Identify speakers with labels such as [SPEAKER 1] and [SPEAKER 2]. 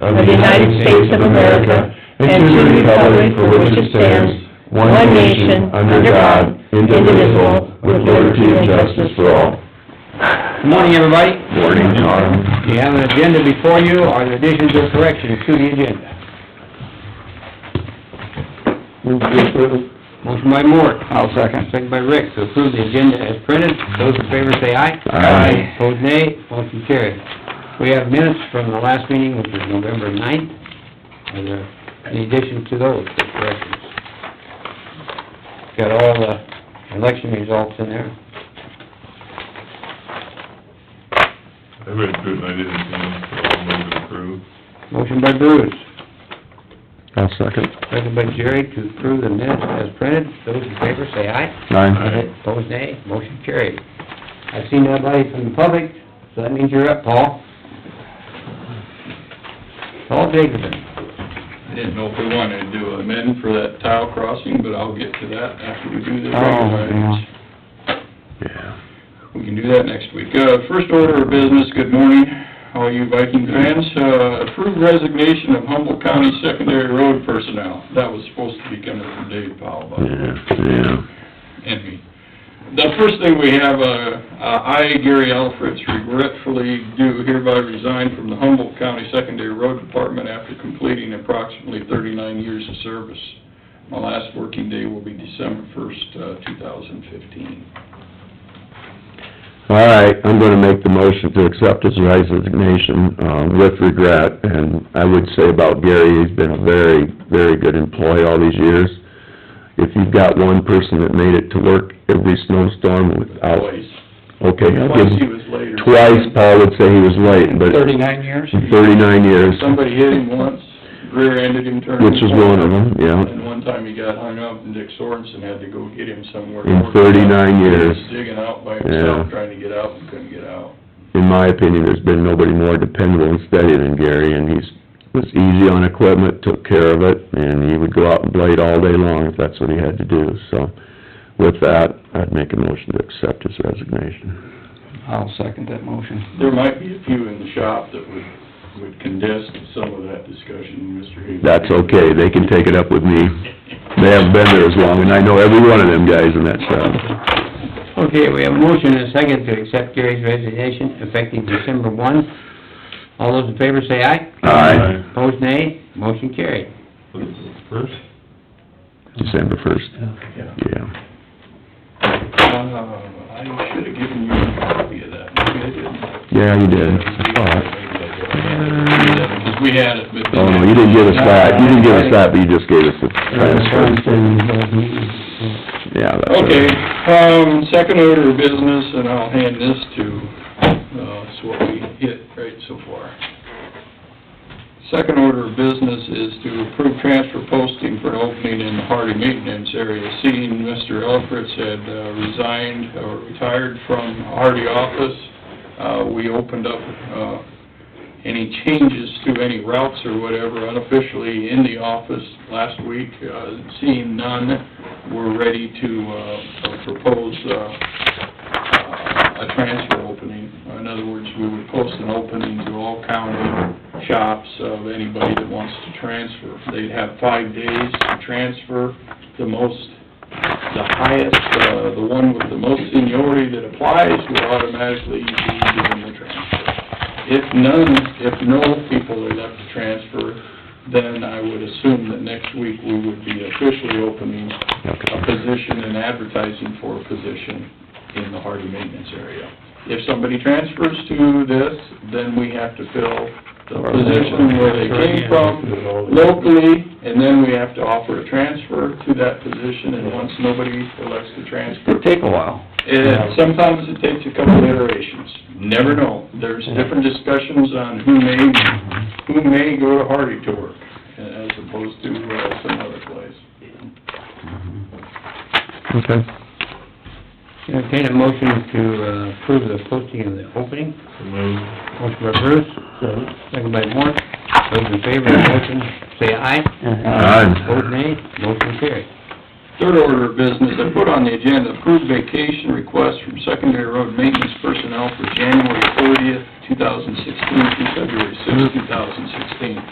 [SPEAKER 1] of the United States of America and to the republic for which it stands, one nation, under God, indivisible, with liberty and justice for all.
[SPEAKER 2] Good morning, everybody.
[SPEAKER 1] Morning, John.
[SPEAKER 2] You have an agenda before you, are there additions or corrections to the agenda? Motion by Moore. I'll second. Second by Rick, to approve the agenda as printed. Those in favor say aye.
[SPEAKER 1] Aye.
[SPEAKER 2] Opposed, nay. Motion carried. We have minutes from the last meeting, which is November ninth. Are there any additions to those, or corrections? Got all the election results in there.
[SPEAKER 3] I read through it and I didn't see them, so I'll move to approve.
[SPEAKER 2] Motion by Bruce.
[SPEAKER 1] I'll second.
[SPEAKER 2] Second by Jerry to approve the minutes as printed. Those in favor say aye.
[SPEAKER 1] Nine.
[SPEAKER 2] Opposed, nay. Motion carried. I've seen nobody from the public, so that means you're up, Paul. Paul Jacobson.
[SPEAKER 4] I didn't know if we wanted to do amend for that tile crossing, but I'll get to that after we do the
[SPEAKER 2] Oh,
[SPEAKER 4] regular.
[SPEAKER 1] Yeah.
[SPEAKER 4] We can do that next week. Uh, first order of business, good morning, all you Viking fans. Uh, approved resignation of Humboldt County secondary road personnel. That was supposed to be coming from Dave Powell, by the way,
[SPEAKER 1] yeah.
[SPEAKER 4] and me. The first thing we have, uh, uh, I, Gary Alfreds, regretfully do hereby resign from the Humboldt County Secondary Road Department after completing approximately thirty-nine years of service. My last working day will be December first, uh, two thousand fifteen.
[SPEAKER 1] All right, I'm gonna make the motion to accept his resignation, uh, with regret, and I would say about Gary, he's been a very, very good employee all these years. If you've got one person that made it to work every snowstorm without,
[SPEAKER 4] Twice,
[SPEAKER 1] okay, I'll give
[SPEAKER 4] twice he
[SPEAKER 1] him-
[SPEAKER 4] was later.
[SPEAKER 1] twice Paul would say he was late, but
[SPEAKER 2] Thirty-nine years?
[SPEAKER 1] in thirty-nine years,
[SPEAKER 4] Somebody hit him once, rear-ended him turning.
[SPEAKER 1] which was one of them, yeah.
[SPEAKER 4] And one time he got hung up and Dick Sorensen had to go get him somewhere.
[SPEAKER 1] In 39 years.
[SPEAKER 4] He was Digging out by
[SPEAKER 1] Yeah.
[SPEAKER 4] himself, trying to get out and couldn't get out.
[SPEAKER 1] in my opinion, there's been nobody more dependable and steady than Gary, and he's, was easy on equipment, took care of it, and he would go out and blade all day long if that's what he had to do, so. With that, I'd make a motion to accept his resignation.
[SPEAKER 2] I'll second that motion.
[SPEAKER 4] There might be a few in the shop that would, would condense some of that discussion, Mr. Hagan.
[SPEAKER 1] That's okay, they can take it up with me. They haven't been there as long, and I know every one of them guys in that shop.
[SPEAKER 2] Okay, we have a motion and a second to accept Gary's resignation effective December one. All those in favor say aye.
[SPEAKER 1] Aye,
[SPEAKER 2] Opposed, nay. Motion carried.
[SPEAKER 3] Was it the First?
[SPEAKER 1] December first,
[SPEAKER 4] Yeah.
[SPEAKER 1] yeah.
[SPEAKER 4] Uh, I should have given you a copy of that, maybe I didn't.
[SPEAKER 1] Yeah, you did.
[SPEAKER 4] Maybe I
[SPEAKER 1] Oh,
[SPEAKER 4] did. Because we had it, but.
[SPEAKER 1] no, you didn't give us that, you didn't give us that, but you just gave us the transfer. Yeah, that's all right.
[SPEAKER 4] Okay, um, second order of business, and I'll hand this to, uh, it's what we hit right so far. Second order of business is to approve transfer posting for an opening in the Hardy Maintenance area. Seeing Mr. Elfritz had uh, resigned or retired from Hardy office, uh, we opened up, uh, any changes to any routes or whatever unofficially in the office last week. Uh, Seeing none, we're ready to uh, propose uh, uh, a transfer opening. In other words, we would post an opening to all county shops of anybody that wants to transfer. They'd have five days to transfer. The most, the highest, uh, the one with the most seniority that applies will automatically be given the transfer. If none, if no people are left to transfer, then I would assume that next week we would be officially opening a position and advertising for a position in the Hardy maintenance area. If somebody transfers to this, then we have to fill the position where they came from locally, and then we have to offer a transfer to that position, and once nobody elects to transfer,
[SPEAKER 2] It'll take a while.
[SPEAKER 4] and
[SPEAKER 2] Uh,
[SPEAKER 4] sometimes it takes a couple iterations, never know. There's different discussions on who may, who may go to Hardy to work as opposed to uh, some other place.
[SPEAKER 1] Okay.
[SPEAKER 2] Entertain a motion to uh, approve the posting of the opening.
[SPEAKER 3] So moved.
[SPEAKER 2] Motion by Bruce, second by Moore. Those in favor of the motion, say aye.
[SPEAKER 1] Aye.
[SPEAKER 2] Opposed, nay. Motion carried.
[SPEAKER 4] Third order of business, I put on the agenda, approved vacation request from secondary road maintenance personnel for January thirtieth, two thousand sixteen, through February sixth, two thousand sixteen.